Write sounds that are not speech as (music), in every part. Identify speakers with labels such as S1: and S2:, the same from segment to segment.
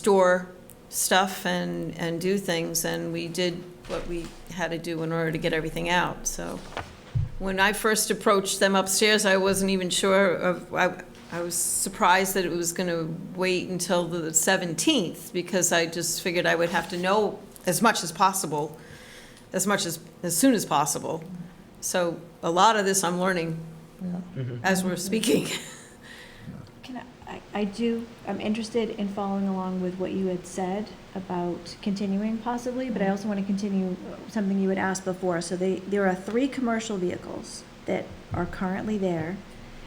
S1: store stuff and, and do things, and we did what we had to do in order to get everything out, so. When I first approached them upstairs, I wasn't even sure of, I, I was surprised that it was gonna wait until the seventeenth, because I just figured I would have to know as much as possible, as much as, as soon as possible. So a lot of this I'm learning as we're speaking. (laughs)
S2: Can I, I- I do, I'm interested in following along with what you had said about continuing possibly, but I also want to continue uh, something you had asked before. So they, there are three commercial vehicles that are currently there,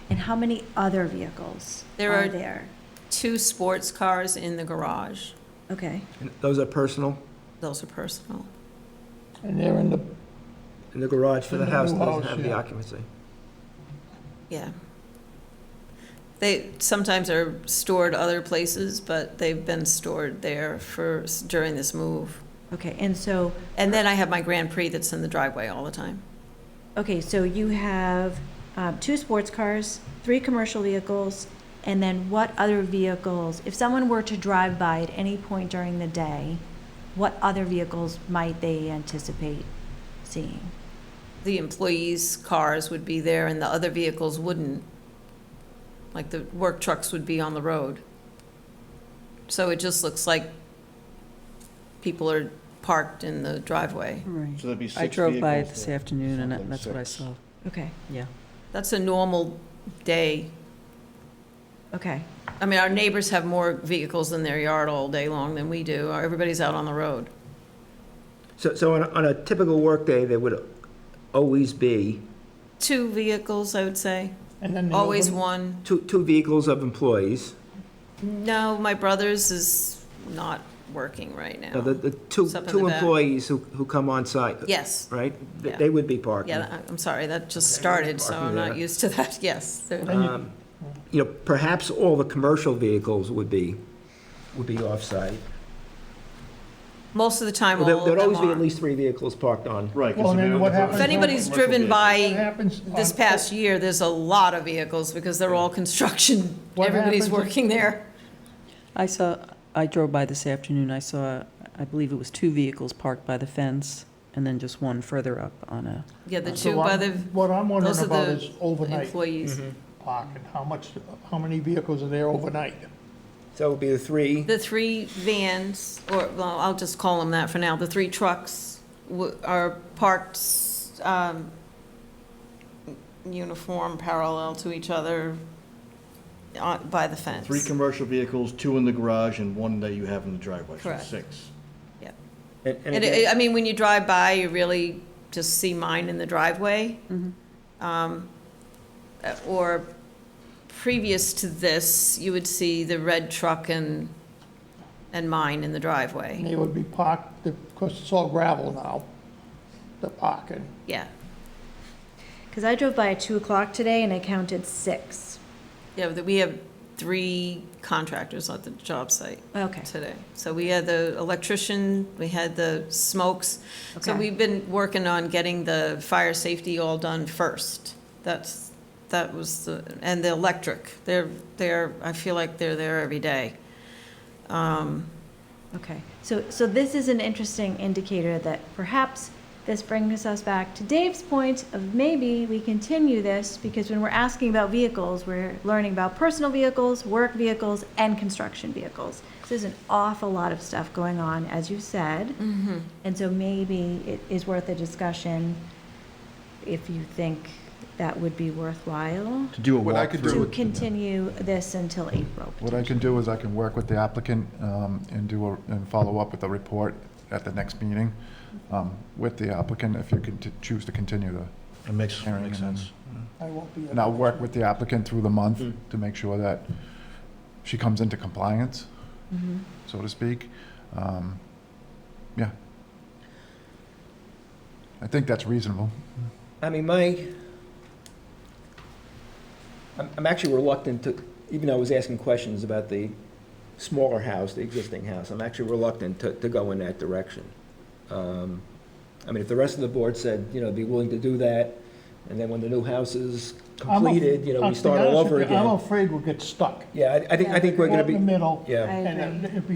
S2: and how many other vehicles
S1: There
S2: are
S1: are-
S2: there?
S1: Two sports cars in the garage,
S2: Okay,
S3: And Those are personal,
S1: those are personal.
S4: And they're in the,
S3: in the garage for the
S4: In the
S3: house
S4: new
S3: doesn't
S4: house,
S3: have the
S4: Mm-hmm. yeah.
S3: occupancy.
S1: Yeah. They sometimes are stored other places, but they've been stored there for, during this move.
S2: okay, and so,
S1: And then I have my Grand Prix that's in the driveway all the time.
S2: okay, so you have uh, two sports cars, three commercial vehicles, and then what other vehicles? If someone were to drive by at any point during the day, what other vehicles might they anticipate seeing?
S1: The employees' cars would be there and the other vehicles wouldn't. Like the work trucks would be on the road. So it just looks like people are parked in the driveway.
S5: Right.
S6: So there'd be
S5: I
S6: six
S5: drove by
S6: vehicles
S5: this
S6: there.
S5: afternoon and
S6: Something
S5: that's what I
S6: six.
S5: saw,
S2: Okay,
S5: yeah.
S1: That's a normal day
S2: okay,
S1: I mean, our neighbors have more vehicles in their yard all day long than we do. Everybody's out on the road.
S3: So, so on a, on a typical workday, there would always be
S1: Two vehicles, I would say.
S4: and then the other
S1: Always
S4: one-
S1: one.
S3: two, two vehicles of employees.
S1: No, my brother's is not working right
S3: Now, the,
S1: now.
S3: the two,
S1: It's up in
S3: two
S1: the back.
S3: employees who, who come on site,
S1: Yes.
S3: right? They-
S1: Yeah.
S3: They would be parking.
S1: Yeah, I- I'm sorry, that just started, so I'm not used to that. (laughs) Yes. they're-
S4: Then you-
S3: Um, You know, perhaps all the commercial vehicles would be, would be off-site.
S1: Most of the time,
S3: Well,
S1: all
S3: there-
S1: of
S3: There'd always be at
S1: them are.
S3: least three vehicles parked on.
S6: Right. 'cause
S4: Well,
S6: if
S4: then
S6: you're on
S4: what
S6: the road-
S4: happens
S1: If anybody's driven
S4: What
S1: by
S4: happens?
S1: this
S4: on-
S1: past year, there's a lot of vehicles because they're all (laughs) construction.
S4: What
S1: Everybody's
S4: happens if-
S1: working there.
S5: I saw, I drove by this afternoon, I saw, I believe it was two vehicles parked by the fence and then just one further up on a,
S1: Yeah, the
S4: So
S1: two by
S4: I'm-
S1: the
S4: What I'm wondering
S1: those are
S4: about
S1: the
S4: is overnight
S1: employees.
S4: parking, how much, how many vehicles are there overnight?
S3: So it would be the three,
S1: The three vans, or, well, I'll just call them that for now, the three trucks w- are parked, um, uniform, parallel to each other on- by the fence.
S6: Three commercial vehicles, two in the garage and one that you have in the driveway, so
S1: Correct.
S6: six.
S3: and, and
S1: And
S3: again,
S1: it, I mean, when you drive by, you really just see mine in the driveway. Um, uh, Or previous to this, you would see the red truck and, and mine in the
S4: And
S1: driveway.
S4: they would be parked, because it's all gravel now, the parking.
S1: Yeah,
S2: because I drove by at two o'clock today and I counted six.
S1: yeah, but we have three contractors at the job site.
S2: Okay,
S1: today. So we had the electrician, we had the smokes. So
S2: Okay.
S1: we've been working on getting the fire safety all done first. That's, that was the, and the electric. They're, they're, I feel like they're there every day.
S2: okay. So, so this is an interesting indicator that perhaps this brings us back to Dave's point of maybe we continue this because when we're asking about vehicles, we're learning about personal vehicles, work vehicles, and construction vehicles. So there's an awful lot of stuff going on, as you said. And so maybe it is worth a discussion if you think that would be worthwhile.
S7: To do a
S8: What I could do
S7: walkthrough.
S2: to
S8: with-
S2: continue this until April.
S8: What I can do is I can work with the applicant um, and do, a- and follow up with a report at the next meeting um, with the applicant if you can t- choose to continue the
S6: It makes,
S8: hearing.
S6: makes
S8: and then-
S6: sense.
S4: I won't be. at-
S8: And I'll work with the applicant through the month to make sure that she comes into compliance, so to speak. Um, Yeah. I think that's reasonable.
S3: I mean, my, I'm, I'm actually reluctant to, even though I was asking questions about the smaller house, the existing house, I'm actually reluctant to, to go in that direction. Um, I mean, if the rest of the board said, you know, be willing to do that, and then when the new house is
S4: I'm af-
S3: completed, you know,
S4: I'll
S3: we
S4: be
S3: start all
S4: honest
S3: over
S4: with you, I'm
S3: again.
S4: afraid we'll get stuck.
S3: Yeah, I, I think, I think we're
S4: Go
S3: gonna
S4: in the
S3: be,
S4: middle,
S3: yeah.
S2: I
S4: and
S2: agree.
S4: it'd be